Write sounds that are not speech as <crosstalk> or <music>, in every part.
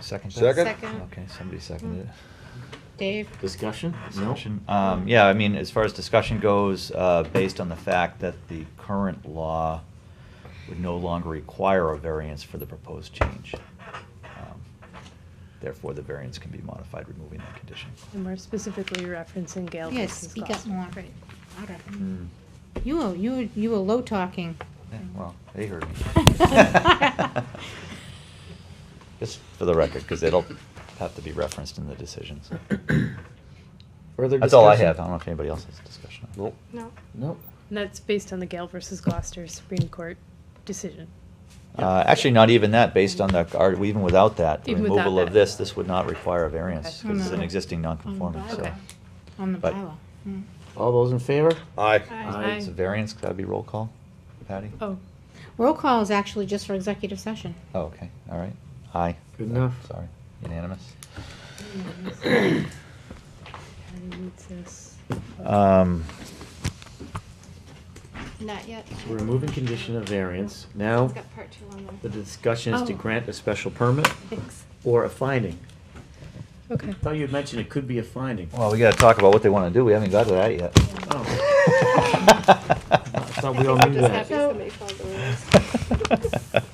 Second? that? Second. Second. Okay, somebody seconded it. Mm-hmm. Dave? Discussion? No? Discussion, um, yeah, I mean, as far as discussion goes, uh, based on the fact that the current law would no longer require a variance for the proposed change. um, Therefore, the variance can be modified, removing that condition. And we're specifically referencing Gale Yeah, versus speak up Gossamer. more. Louder. Hmm. Mm, You were, you were, you were low talking. yeah, Well, they heard me. <laughs> Just for the record, because it'll have to be referenced in the decisions. Further That's all I discussion? have, I don't know if anybody else has a discussion. Nope. No. Nope. And that's based on the Gale versus Gloucester Supreme Court decision. Uh, Actually, not even that, based on the, our- even without that, the Even without removal of that. this, this would not require a variance, Okay. because it's an Oh, No. existing non-conforming, so. Okay. On the But- bylaw. Mm. All those in favor? Aye. Aye. It's a variance, that'd be roll call, Patty? Oh, Roll call is actually just for executive session. Oh, okay, all right, aye. Good enough. Sorry, unanimous. Oh. and it's this. Um, Not yet. We're removing condition of variance. Now, part two on the discussion is to Oh. grant a special permit <laughs> or a finding. Okay. I thought you had mentioned it could be a finding. Well, we gotta talk about what they wanna do, we haven't got to that yet. Oh, I thought we all I'm knew <laughs> just happy that. somebody found the rules.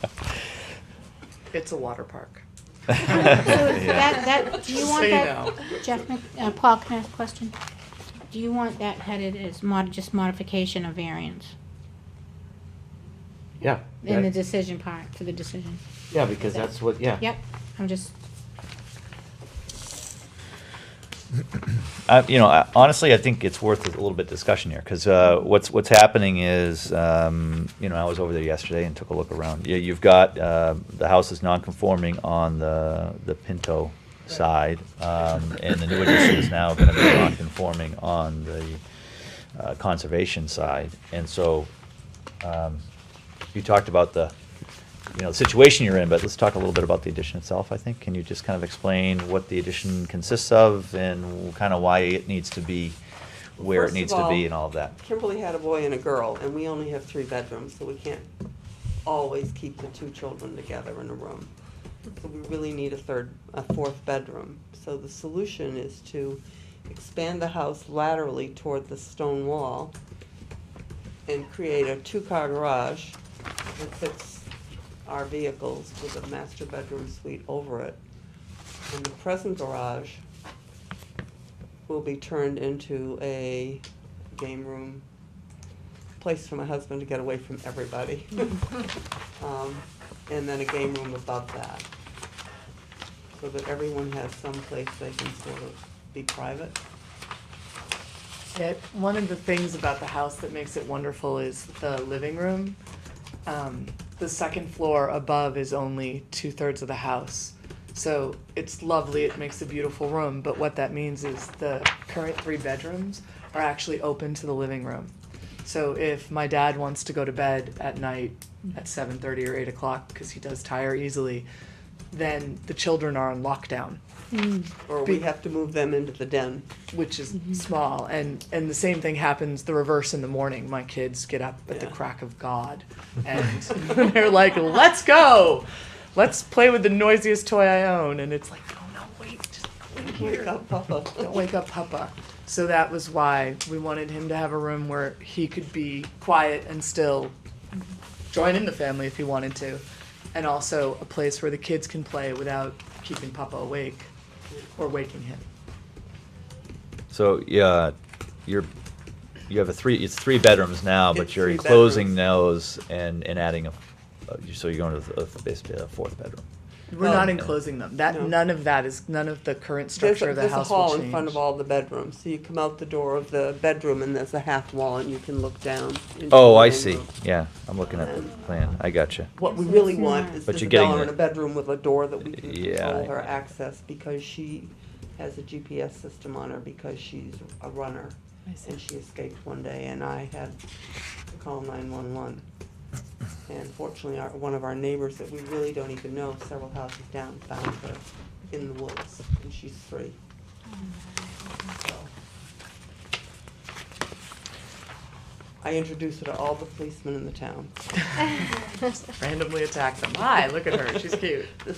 It's a <laughs> water park. That, that, do you Just want so you that, know. Jeff, Mc- uh, Paul, can I ask a question? Do you want that headed as mod, just modification of variance Yeah. in the that- decision part, for the decision? Yeah, because that's what, yeah. Yep, I'm just, I- You know, I- honestly, I think it's worth a little bit discussion here, because what's, what's happening is, um, you know, I was over there yesterday and took a look around. You- You've got, uh, the house is non-conforming on the, the Pinto side, um, and the new addition is now going to be non-conforming on the uh, conservation side. And so um, you talked about the, you know, the situation you're in, but let's talk a little bit about the addition itself, I think. Can you just kind of explain what the addition consists of and kind of why it needs to be where it First of needs to be all- and all of that? Kimberly had a boy and a girl, and we only have three bedrooms, so we can't always keep the two children together in a room. So we really need a third, a fourth bedroom. So the solution is to expand the house laterally toward the stone wall and create a two-car garage that fits our vehicles with a master bedroom suite over it. And the present garage will be turned into a game room, place for my husband to get away from <laughs> everybody. Um, And then a game room above that, so that everyone has some place they can sort of be private. Yeah, one of the things about the house that makes it wonderful is the living room. Um, the second floor above is only two thirds of the house. So it's lovely, it makes a beautiful room, but what that means is the current three bedrooms are actually open to the living room. So if my dad wants to go to bed at night at seven thirty or eight o'clock, because he does tire easily, then the children are on lockdown. Or we Be- have to move them into the den. which is Mm-hmm. small and and the same thing happens the reverse in the morning my kids get up at the Yeah. crack of god and <laughs> they're like let's go let's play with the noisiest toy i own and it's like "Oh, no no wait just wait Wake here up, <laughs> Papa. don't wake up papa so that was why we wanted him to have a room where he could be quiet and still join in the family if he wanted to and also a place where the kids can play without keeping papa awake or waking him So, yeah, you're, you have a three, it's three bedrooms now, but It's you're three enclosing those and, and adding a, uh, so you're going to the- uh, basically a fourth bedroom. We're Well, not enclosing them. That Um, no. none of that is none of the current There's structure a, of the there's a house hall will change. in front of <laughs> all the bedrooms, so you come out the door of the bedroom and there's a half wall and you can look down. into Oh, the I game see, room. yeah, I'm looking at the plan, I got you. What we really want is But you're Isabella getting in a the- bedroom with a door that we can Yeah, control I- her access because she has a GPS system on her because she's a runner. I see. And she escaped one day and I had to call nine one one. And fortunately, our, one of our neighbors that we really don't even know, several houses down, found her in the woods and she's free. So I introduced her to all the policemen in the town. <laughs> Randomly attack them. Hi, look at her. She's cute.